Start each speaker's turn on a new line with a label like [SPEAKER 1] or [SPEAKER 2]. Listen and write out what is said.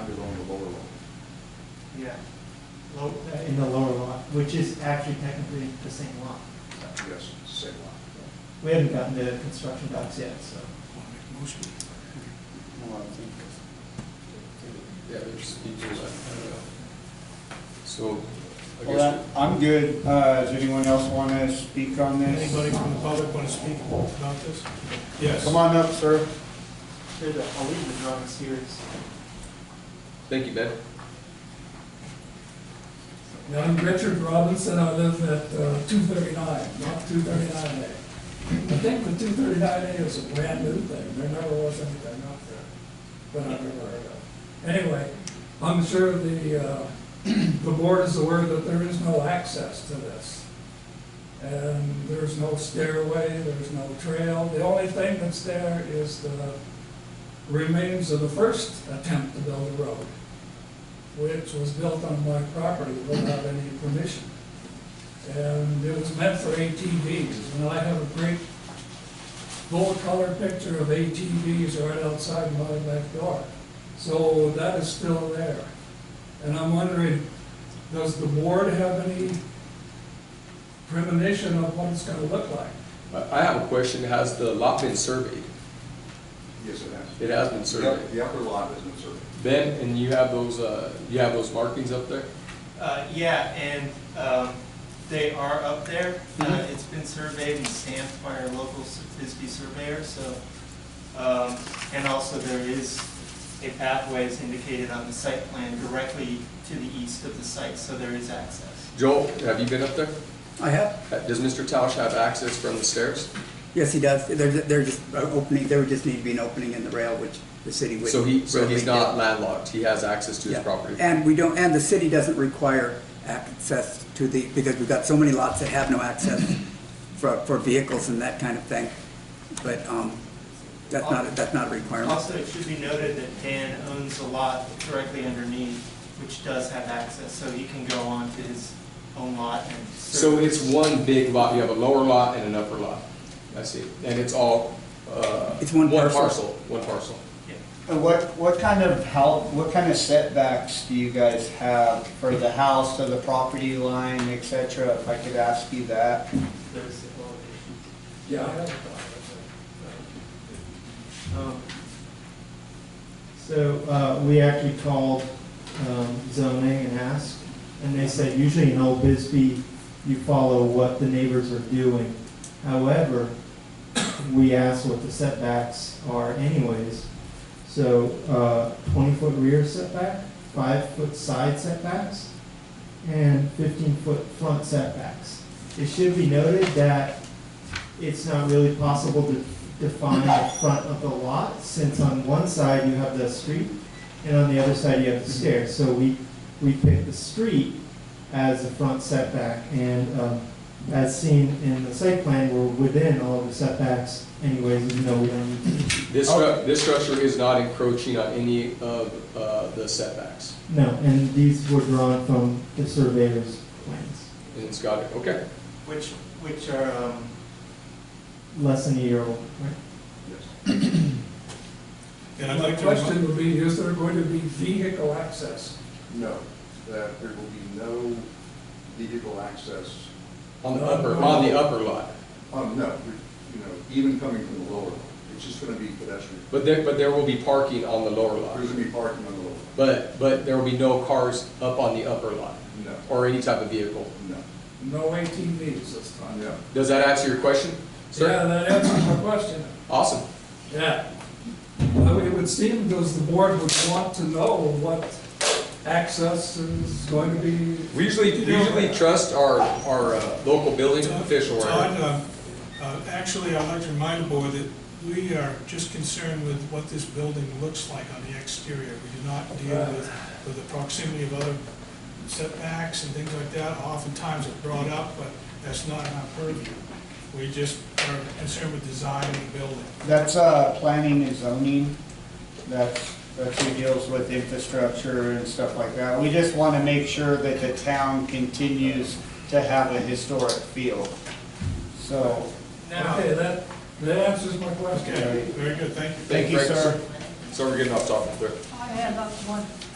[SPEAKER 1] the lower lot.
[SPEAKER 2] Yeah, low, uh, in the lower lot, which is actually technically the same lot.
[SPEAKER 1] Yes, it's the same lot.
[SPEAKER 2] We haven't gotten the construction docs yet, so.
[SPEAKER 3] Well, I think, yeah, there's just details, I don't know. So, I
[SPEAKER 4] Well,
[SPEAKER 3] guess,
[SPEAKER 4] that- I'm good. Uh, Does anyone else want to speak on this?
[SPEAKER 5] Anybody from the public want to speak about this? Yes.
[SPEAKER 4] Come on up, sir.
[SPEAKER 2] There's a, I'll leave the drawing series.
[SPEAKER 3] thank you, Ben.
[SPEAKER 6] Now, I'm Richard Robinson, I live at uh, two thirty-nine, not two thirty-nine A. I think the two thirty-nine A is a brand new thing, there never was anything out there, that I've ever heard of. Anyway, I'm sure the, uh, the board is aware that there is no access to this. And there's no stairway, there's no trail, the only thing that's there is the remains of the first attempt to build a road which was built on my property without any permission. And it was meant for ATVs, and I have a great full-color picture of ATVs right outside my backyard. So that is still there. And I'm wondering, does the board have any premonition of what it's gonna look like?
[SPEAKER 3] I, I have a question, has the lot been surveyed?
[SPEAKER 1] Yes, it has.
[SPEAKER 3] It has been
[SPEAKER 1] The up-
[SPEAKER 3] surveyed.
[SPEAKER 1] The upper lot isn't surveyed.
[SPEAKER 3] Ben, and you have those, uh, you have those markings up there?
[SPEAKER 7] Uh, yeah, and, um, they are up there. Uh,
[SPEAKER 2] Mm-hmm.
[SPEAKER 7] it's been surveyed and stamped by our local s- Bisbee surveyor, so, um, and also there is a pathway is indicated on the site plan directly to the east of the site, so there is access.
[SPEAKER 3] Joel, have you been up there?
[SPEAKER 8] I have,
[SPEAKER 3] Uh, Does Mr. Tausch have access from the stairs?
[SPEAKER 8] yes, he does, there, there just, uh, opening, there would just need to be an opening in the rail, which the city would.
[SPEAKER 3] So he, so he's
[SPEAKER 8] readily
[SPEAKER 3] not
[SPEAKER 8] do.
[SPEAKER 3] landlocked, he has access to his
[SPEAKER 8] Yeah.
[SPEAKER 3] property?
[SPEAKER 8] And we don't, and the city doesn't require access to the, because we've got so many lots that have no access for, for vehicles and that kind of thing, but, um, that's not, that's not a requirement.
[SPEAKER 7] Also, it should be noted that Dan owns a lot directly underneath, which does have access, so he can go onto his own lot and.
[SPEAKER 3] So
[SPEAKER 7] survey.
[SPEAKER 3] it's one big lot, you have a lower lot and an upper lot, I see, and it's all, uh.
[SPEAKER 8] It's one parcel.
[SPEAKER 3] One parcel.
[SPEAKER 7] Yeah.
[SPEAKER 4] Uh, What, what kind of help, what kind of setbacks do you guys have for the house to the property line, et cetera? If I could ask you that?
[SPEAKER 7] There's the elevation.
[SPEAKER 6] Yeah, I have a thought.
[SPEAKER 2] Um, So, uh, we actually called, um, zoning and asked, and they said usually in Old Bisbee, you follow what the neighbors are doing. However, we asked what the setbacks are anyways. So, uh, twenty-foot rear setback, five-foot side setbacks, and fifteen-foot front setbacks. It should be noted that it's not really possible to define the front of the lot, since on one side you have the street, and on the other side you have the stairs. So we, we picked the street as the front setback, and um, as seen in the site plan, we're within all of the setbacks anyways, even though we don't need to
[SPEAKER 3] This,
[SPEAKER 6] Oh.
[SPEAKER 3] stru- this structure is not encroaching on any of, uh, the setbacks,
[SPEAKER 2] No, and these were drawn from the surveyor's plans,
[SPEAKER 3] and it's got it, okay.
[SPEAKER 7] Which, which are, um,
[SPEAKER 2] less than a year old, right?
[SPEAKER 1] Yes.
[SPEAKER 5] And I'd
[SPEAKER 6] My
[SPEAKER 5] like to, remi-
[SPEAKER 6] question would be, is there going to be vehicle access?
[SPEAKER 1] No, that there will be no vehicle access,
[SPEAKER 3] On the upper, on the upper lot,
[SPEAKER 1] um, no, you know, even coming from the lower lot. It's just gonna be pedestrian.
[SPEAKER 3] but there, but there will be parking on the lower lot,
[SPEAKER 1] There's gonna be parking on the lower lot.
[SPEAKER 3] but, but there will be no cars up on the upper lot,
[SPEAKER 1] No,
[SPEAKER 3] or any type of vehicle.
[SPEAKER 1] no,
[SPEAKER 6] No ATVs this time?
[SPEAKER 1] no.
[SPEAKER 3] Does that answer your question,
[SPEAKER 6] Yeah,
[SPEAKER 3] sir?
[SPEAKER 6] that answers my question.
[SPEAKER 3] Awesome,
[SPEAKER 6] Yeah. I mean, it would seem because the board would want to know what access is going to be.
[SPEAKER 3] we usually, we usually trust our, our, uh, local building official right
[SPEAKER 5] Todd, uh, uh, actually, I'd like to remind the board that we are just concerned with what this building looks like on the exterior. We do not deal with, with the proximity of other setbacks and things like that. Oftentimes it's brought up, but that's not our purview. We just are concerned with design of the building.
[SPEAKER 4] That's, uh, planning and zoning. That's, that's who deals with infrastructure and stuff like that. We just want to make sure that the town continues to have a historic feel. So,
[SPEAKER 7] now.
[SPEAKER 6] Okay, that, that answers my question.
[SPEAKER 5] Okay, very good, thank you.
[SPEAKER 4] thank you,
[SPEAKER 3] Thank you,
[SPEAKER 4] sir.
[SPEAKER 3] So we're getting off topic there.
[SPEAKER 9] I have up one